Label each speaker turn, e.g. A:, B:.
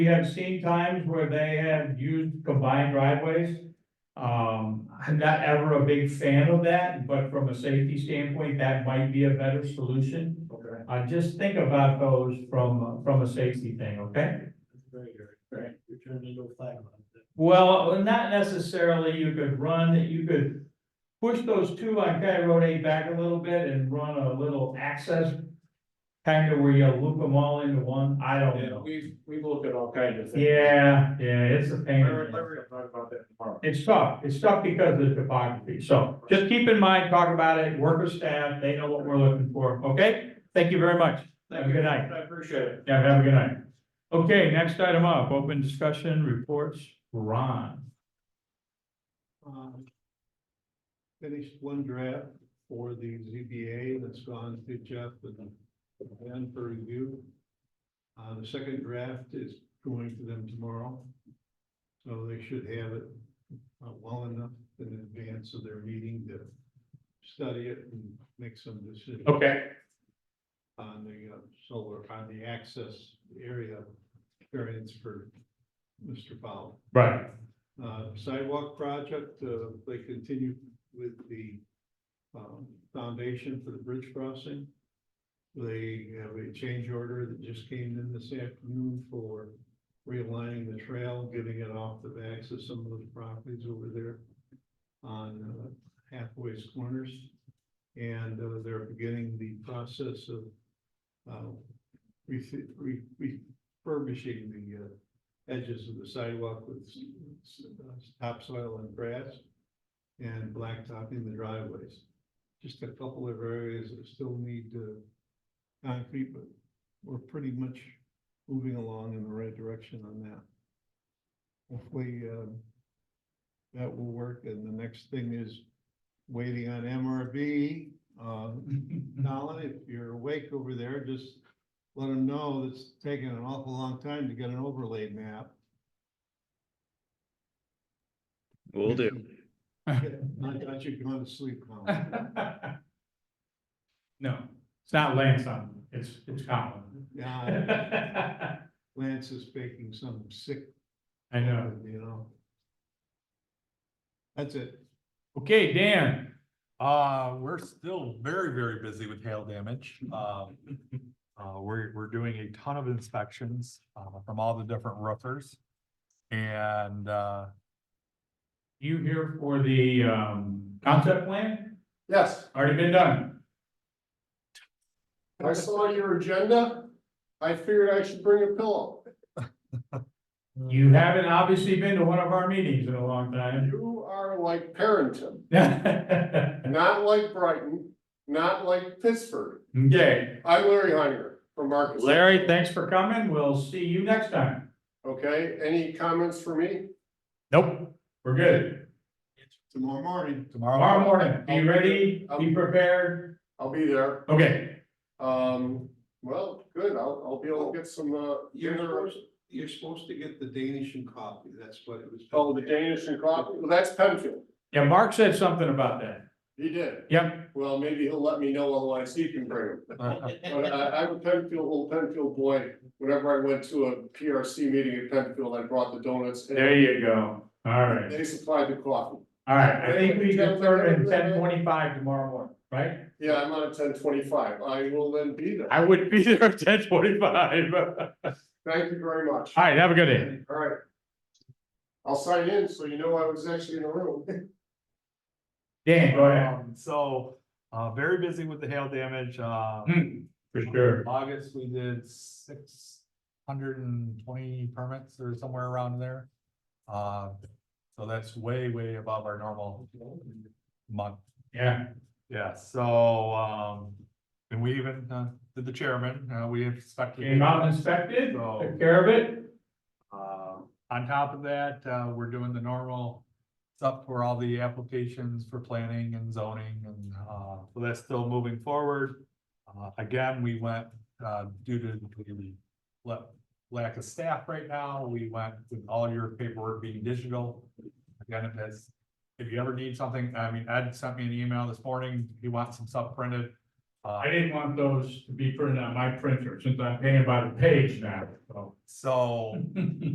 A: We have seen times where they have used combined driveways. Um, I'm not ever a big fan of that, but from a safety standpoint, that might be a better solution.
B: Okay.
A: Uh, just think about those from, from a safety thing, okay?
B: Very good. Right. You're turning into a flag. lot.
A: Well, not necessarily, you could run, you could push those two on County Road eight back a little bit and run a little access. Kind of where you loop them all into one, I don't
B: Yeah,
A: know.
B: we've, we've looked at all kinds of things.
A: Yeah, yeah, it's a pain. in the
B: Larry,
A: ass.
B: Larry will talk about that tomorrow.
A: It's tough, it's tough because of the topography, so just keep in mind, talk about it, work with staff, they know what we're looking for, okay? Thank you very much, have a good night,
B: I appreciate it.
A: yeah, have a good night. Okay, next item up, open discussion reports, Ron.
C: um, Finished one draft for the ZBA that's gone to Jeff and Ben for review. Uh, the second draft is going to them tomorrow. So they should have it uh, well enough in advance of their meeting to study it and make some decisions
A: Okay.
C: on the uh, solar, on the access area variance for Mr. Powell.
A: Right,
C: Uh, sidewalk project, uh, they continue with the, um, foundation for the bridge crossing. They have a change order that just came in this afternoon for realigning the trail, getting it off the backs of some of those properties over there on uh, halfway's corners. And, uh, they're beginning the process of, uh, refi- re- refurbishing the, uh, edges of the sidewalk with s- s- uh, topsoil and grass and blacktopping the driveways. Just a couple of areas that still need uh, concrete, but we're pretty much moving along in the right direction on that. Hopefully, um, that will work. And the next thing is waiting on MRB. uh, Colin, if you're awake over there, just let them know it's taking an awful long time to get an overlay map.
D: Will do.
C: I thought you'd gone to sleep, Colin.
A: no, it's not Lance on, it's, it's Colin.
C: Yeah,
A: I
C: Lance is baking some sick.
A: know,
C: You know. That's it.
A: okay, Dan,
E: Uh, we're still very, very busy with hail damage. Um, uh, we're, we're doing a ton of inspections, uh, from all the different roofers. And, uh,
A: you here for the, um, concept plan,
F: Yes,
A: already been done?
F: I saw your agenda. I figured I should bring a pillow.
A: You haven't obviously been to one of our meetings in a long time.
F: You are like Parenton,
A: Okay,
F: not like Brighton, not like Pittsburgh. I'm Larry Heiner from Marcus.
A: Larry, thanks for coming. We'll see you next time.
F: Okay, any comments for me?
A: Nope. We're good.
C: Tomorrow morning.
A: Tomorrow
E: tomorrow,
A: morning, be ready, be prepared.
F: I'll be there.
A: Okay,
F: Um, well, good. I'll, I'll be able to get some, uh,
C: You're
F: dinner.
C: supposed, you're supposed to get the Danish and coffee. That's what it was.
F: Oh, the Danish and coffee. Well, that's Penfield.
A: yeah, Mark said something about that.
F: He did.
A: Yep,
F: Well, maybe he'll let me know otherwise he can bring him. But I, I'm a Penfield, old Penfield boy. Whenever I went to a PRC meeting in Penfield, I brought the donuts. and
A: there you go. All right,
F: They supplied the coffee.
A: all right. I think we can start at ten twenty-five tomorrow morning, right?
F: Yeah, I'm on a ten twenty-five. I will then be there.
A: I would be there at ten twenty-five. All
F: Thank you very much.
A: right, have a good day.
F: All right. I'll sign in, so you know I was actually in the room.
A: Dan, go ahead.
E: Um, So, uh, very busy with the hail damage, uh.
A: Hmm, For sure.
E: August, we did six hundred and twenty permits or somewhere around there. Uh, so that's way, way above our normal month.
A: Yeah,
E: Yeah, so, um, and we even, uh, did the chairman, uh, we inspected.
A: came out and inspected, took care of it.
E: Uh, on top of that, uh, we're doing the normal stuff for all the applications for planning and zoning and, uh, so that's still moving forward. Uh, again, we went, uh, due to the la- lack of staff right now, we went with all your paperwork being digital. Again, if that's, if you ever need something, I mean, Ed sent me an email this morning, he wants some stuff printed. Uh,
A: I didn't want those to be printed on my printer, since I'm paying by the page now, so.
E: so.